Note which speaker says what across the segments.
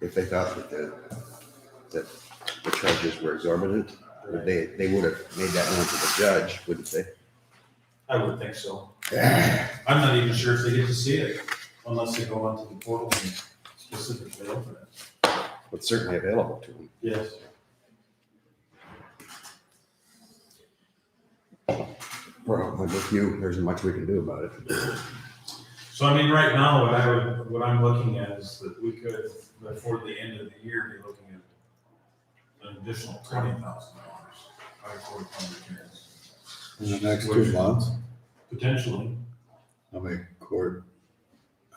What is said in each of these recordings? Speaker 1: if they thought that the, that the charges were exorbitant, would they, they would have made that known to the judge, wouldn't they?
Speaker 2: I would think so. I'm not even sure if they get to see it unless they go onto the portal and specifically open it.
Speaker 1: But certainly available to them.
Speaker 2: Yes.
Speaker 1: Well, I'm with you, there isn't much we can do about it.
Speaker 2: So I mean, right now, what I would, what I'm looking at is that we could, before the end of the year, be looking at an additional twenty thousand dollars by court public hearings.
Speaker 3: In the next two months,
Speaker 2: Potentially,
Speaker 3: I make court.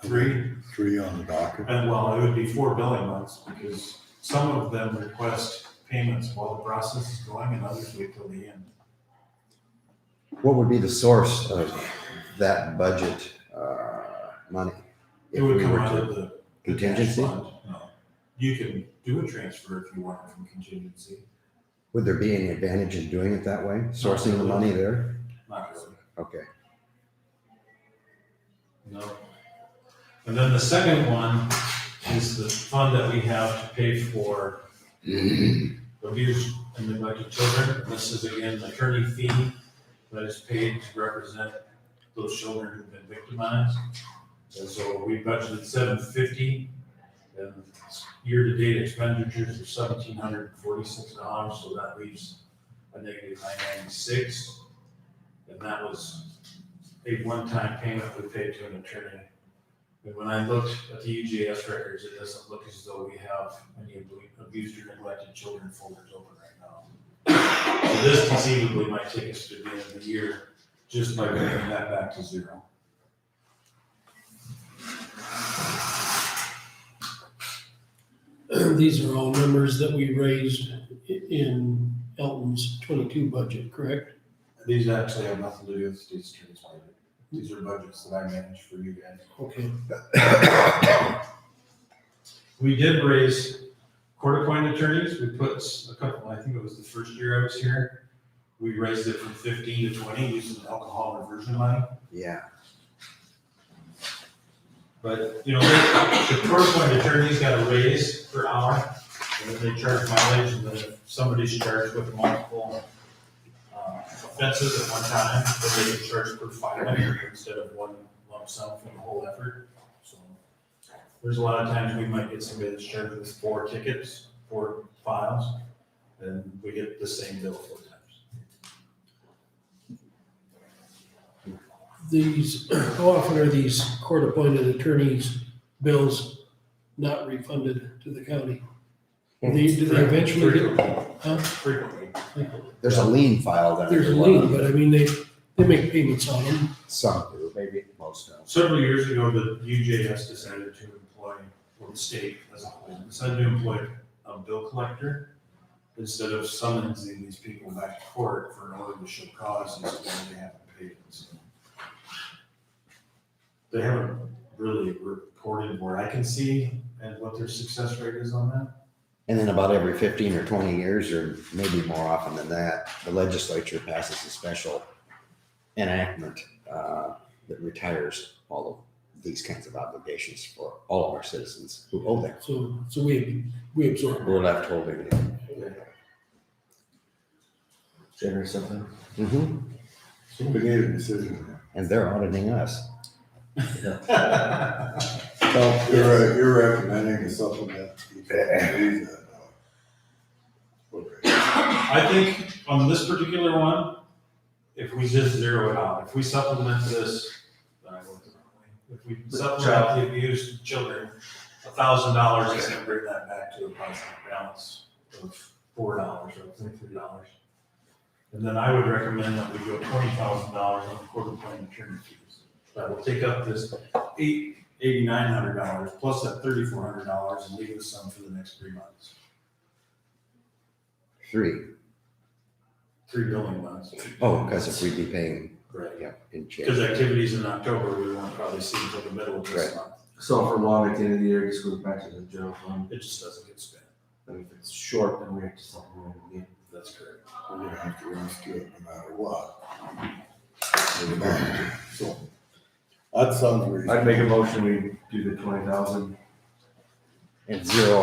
Speaker 2: three,
Speaker 3: Three on the docket.
Speaker 2: and well, it would be four billing months because some of them request payments while the process is going and others wait till the end.
Speaker 1: What would be the source of that budget, uh, money?
Speaker 2: It
Speaker 1: If
Speaker 2: would
Speaker 1: we
Speaker 2: come
Speaker 1: were
Speaker 2: out
Speaker 1: to-
Speaker 2: of the.
Speaker 1: Contingency?
Speaker 2: cash fund. No. You can do a transfer if you want from contingency,
Speaker 1: Would there be any advantage in doing it that way, sourcing the money there?
Speaker 2: not really.
Speaker 1: Okay,
Speaker 2: No. And then the second one is the fund that we have to pay for abused and neglected children. And This is again an attorney fee that is paid to represent those children who've been victimized. And so we budgeted seven fifty and year-to-date expenditures are seventeen hundred and forty-six dollars, so that leaves a negative nine ninety-six. And that was a one-time payment we paid to an attorney. And when I looked at the UGS records, it doesn't look as though we have any abu- abused or neglected children folders open right now. So this conceivably might take us to the end of the year, just by bringing that back to zero.
Speaker 4: These are all numbers that we raised i- in Elton's twenty-two budget, correct?
Speaker 2: These actually have nothing to do with the state's attorney's budget. These are budgets that I manage for you guys.
Speaker 4: Okay,
Speaker 2: We did raise court-appointed attorneys, we put s- a couple, I think it was the first year I was here, we raised it from fifteen to twenty using alcohol reversion money.
Speaker 1: yeah,
Speaker 2: But, you know, they- the court-appointed attorneys got a raise per hour, and then they charge mileage, and then if somebody's charged with multiple uh, offenses at one time, then they get charged per filing instead of one lump sum for the whole effort, so. There's a lot of times we might get somebody that's charged with four tickets, four files, and we get the same bill four times.
Speaker 4: these, how often are these court-appointed attorneys' bills not refunded to the county? Do they, do they eventually get, huh?
Speaker 2: Frequently.
Speaker 1: there's a lien filed under.
Speaker 4: There's a
Speaker 1: the
Speaker 4: lien,
Speaker 1: loan.
Speaker 4: but I mean, they, they make payments on them.
Speaker 1: Some do, maybe most don't.
Speaker 2: Several years ago, the UJS decided to employ, or the state as a whole, decided to employ a bill collector instead of summoning these people back to court for an order to show cause as to why they haven't paid. So They haven't really reported where I can see and what their success rate is on that.
Speaker 1: And then about every fifteen or twenty years, or maybe more often than that, the legislature passes a special enactment uh, that retires all of these kinds of obligations for all of our citizens who owe them.
Speaker 4: So, so we, we absorb.
Speaker 1: We're left holding them.
Speaker 5: Dinner or something.
Speaker 1: Mhm.
Speaker 3: We need a decision.
Speaker 1: And they're auditing us.
Speaker 3: So you're, you're recommending a supplement. Okay.
Speaker 2: I think on this particular one, if we just zero it out, if we supplement this, I wrote the wrong way. if we supplement the abused children, a thousand dollars is gonna bring that back to a positive balance of four dollars or three dollars. And then I would recommend that we go twenty thousand dollars on quarter point attorney fees. That will take up this eight, eighty-nine hundred dollars plus that thirty-four hundred dollars and leave us some for the next three months,
Speaker 1: Three.
Speaker 2: three billing months.
Speaker 1: Oh, because if we'd be paying,
Speaker 2: Right.
Speaker 1: yeah, in change.
Speaker 2: Because activities in October, we won't probably see until the middle of this
Speaker 1: Right.
Speaker 2: month.
Speaker 5: So for long at the end of the year, it just goes back to the general fund.
Speaker 2: It just doesn't get spent.
Speaker 5: And if it's short, then we have to supplement it again.
Speaker 2: That's correct.
Speaker 3: We're gonna have to run through it no matter what. We're gonna have to. So, That sounds reasonable.
Speaker 5: I'd make a motion, we do the twenty thousand.
Speaker 1: And zero